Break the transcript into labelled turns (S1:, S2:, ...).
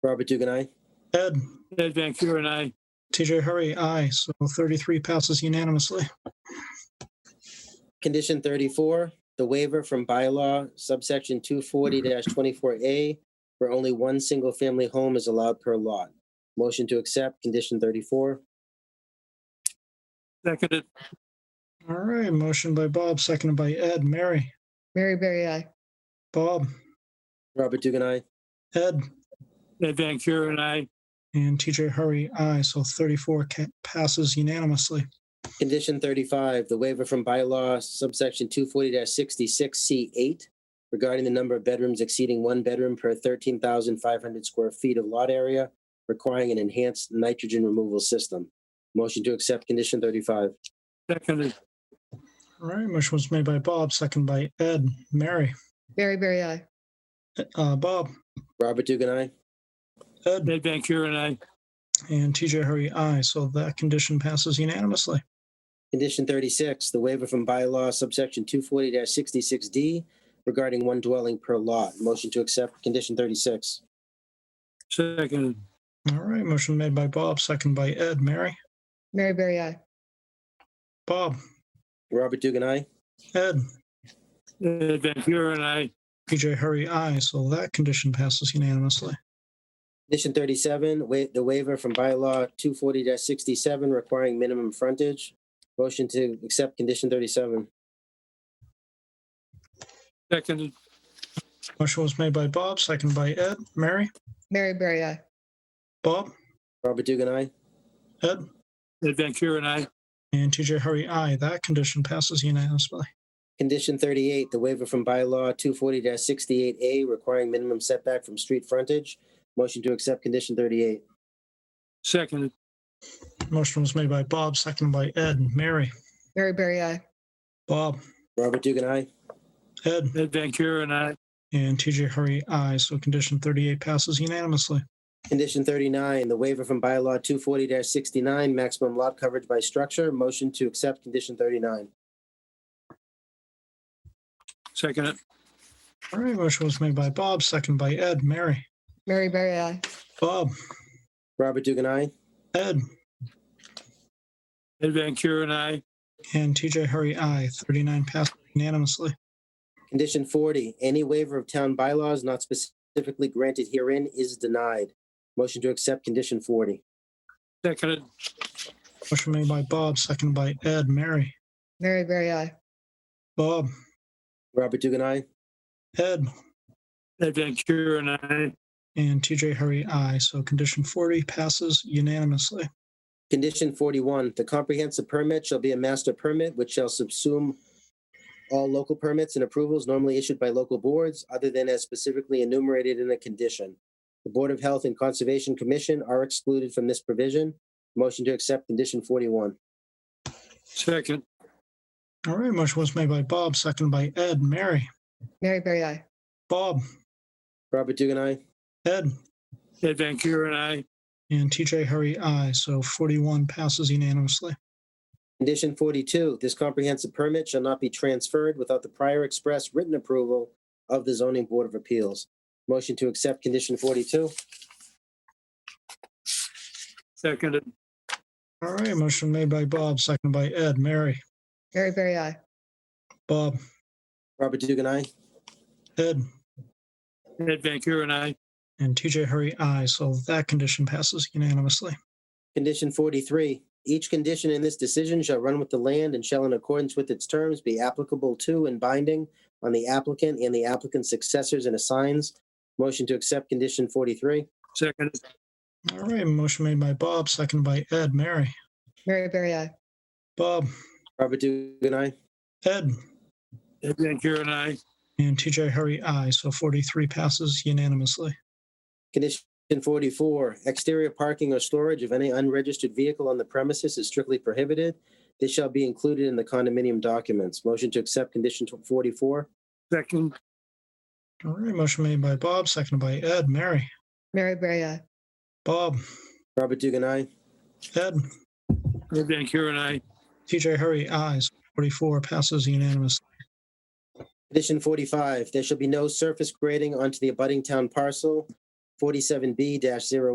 S1: Robert Dugan, aye.
S2: Ed,
S3: Ed Van Kuren, I.
S2: TJ Hurry, aye. So 33 passes unanimously.
S1: Condition thirty-four, the waiver from bylaw subsection two forty twenty-four A, where only one single-family home is allowed per lot. Motion to accept, condition thirty-four.
S3: Seconded,
S2: All right, motion by Bob, seconded by Ed. Mary,
S4: Mary Berry I.
S2: Bob,
S1: Robert Dugan, aye.
S2: Ed,
S3: Ed Van Kuren, I.
S2: and TJ Hurry, aye. So 34 ca- passes unanimously.
S1: Condition thirty-five, the waiver from bylaw subsection two forty sixty-six C eight regarding the number of bedrooms exceeding one bedroom per thirteen thousand five hundred square feet of lot area, requiring an enhanced nitrogen removal system. Motion to accept, condition thirty-five.
S3: Seconded,
S2: All right, motion was made by Bob, seconded by Ed. Mary,
S4: Mary Berry I.
S2: uh, Bob,
S1: Robert Dugan, aye.
S2: Ed,
S3: Ed Van Kuren, I.
S2: and TJ Hurry, aye. So that condition passes unanimously.
S1: Condition thirty-six, the waiver from bylaw subsection two forty sixty-six D regarding one dwelling per lot. Motion to accept, condition thirty-six.
S3: Seconded,
S2: All right, motion made by Bob, seconded by Ed. Mary,
S4: Mary Berry I.
S2: Bob,
S1: Robert Dugan, aye.
S2: Ed,
S3: Ed Van Kuren, I.
S2: TJ Hurry, aye. So that condition passes unanimously.
S1: Condition thirty-seven, wa- the waiver from bylaw two forty sixty-seven requiring minimum frontage. Motion to accept, condition thirty-seven.
S3: Seconded,
S2: Motion was made by Bob, seconded by Ed. Mary,
S4: Mary Berry I.
S2: Bob,
S1: Robert Dugan, aye.
S2: Ed,
S3: Ed Van Kuren, I.
S2: and TJ Hurry, aye. That condition passes unanimously.
S1: Condition thirty-eight, the waiver from bylaw two forty sixty-eight A requiring minimum setback from street frontage. Motion to accept, condition thirty-eight.
S3: Seconded,
S2: Motion was made by Bob, seconded by Ed. Mary,
S4: Mary Berry I.
S2: Bob,
S1: Robert Dugan, aye.
S2: Ed,
S3: Ed Van Kuren, I.
S2: and TJ Hurry, aye. So condition 38 passes unanimously.
S1: Condition thirty-nine, the waiver from bylaw two forty sixty-nine, maximum lot coverage by structure. Motion to accept, condition thirty-nine.
S3: Seconded,
S2: All right, motion was made by Bob, seconded by Ed. Mary,
S4: Mary Berry I.
S2: Bob,
S1: Robert Dugan, aye.
S2: Ed,
S3: Ed Van Kuren, I.
S2: and TJ Hurry, aye. 39 passes unanimously.
S1: Condition forty, any waiver of town bylaws not specifically granted herein is denied. Motion to accept condition forty.
S3: Seconded,
S2: Motion made by Bob, seconded by Ed. Mary,
S4: Mary Berry I.
S2: Bob,
S1: Robert Dugan, aye.
S2: Ed,
S3: Ed Van Kuren, I.
S2: and TJ Hurry, aye. So condition 40 passes unanimously.
S1: Condition forty-one, the comprehensive permit shall be a master permit which shall subsume all local permits and approvals normally issued by local boards other than as specifically enumerated in a condition. The Board of Health and Conservation Commission are excluded from this provision. Motion to accept condition forty-one.
S3: Second,
S2: All right, motion was made by Bob, seconded by Ed. Mary,
S4: Mary Berry I.
S2: Bob,
S1: Robert Dugan, aye.
S2: Ed,
S3: Ed Van Kuren, I.
S2: and TJ Hurry, aye. So 41 passes unanimously.
S1: Condition forty-two, this comprehensive permit shall not be transferred without the prior express written approval of the zoning board of appeals. Motion to accept condition forty-two.
S3: Seconded,
S2: All right, motion made by Bob, seconded by Ed. Mary,
S4: Mary Berry I.
S2: Bob,
S1: Robert Dugan, aye.
S2: Ed,
S3: Ed Van Kuren, I.
S2: and TJ Hurry, aye. So that condition passes unanimously.
S1: Condition forty-three, each condition in this decision shall run with the land and shall in accordance with its terms be applicable to and binding on the applicant and the applicant's successors and assigns. Motion to accept condition forty-three.
S3: Seconded,
S2: All right, motion made by Bob, seconded by Ed. Mary,
S4: Mary Berry I.
S2: Bob,
S1: Robert Dugan, aye.
S2: Ed,
S3: Ed Van Kuren, I.
S2: and TJ Hurry, aye. So 43 passes unanimously.
S1: Condition forty-four, exterior parking or storage of any unregistered vehicle on the premises is strictly prohibited. This shall be included in the condominium documents. Motion to accept condition tw- forty-four.
S3: Second,
S2: All right, motion made by Bob, seconded by Ed. Mary,
S4: Mary Berry I.
S2: Bob,
S1: Robert Dugan, aye.
S2: Ed,
S3: Ed Van Kuren, I.
S2: TJ Hurry, aye. So 44 passes unanimously.
S1: Condition forty-five, there shall be no surface grading onto the abutting town parcel forty-seven B 1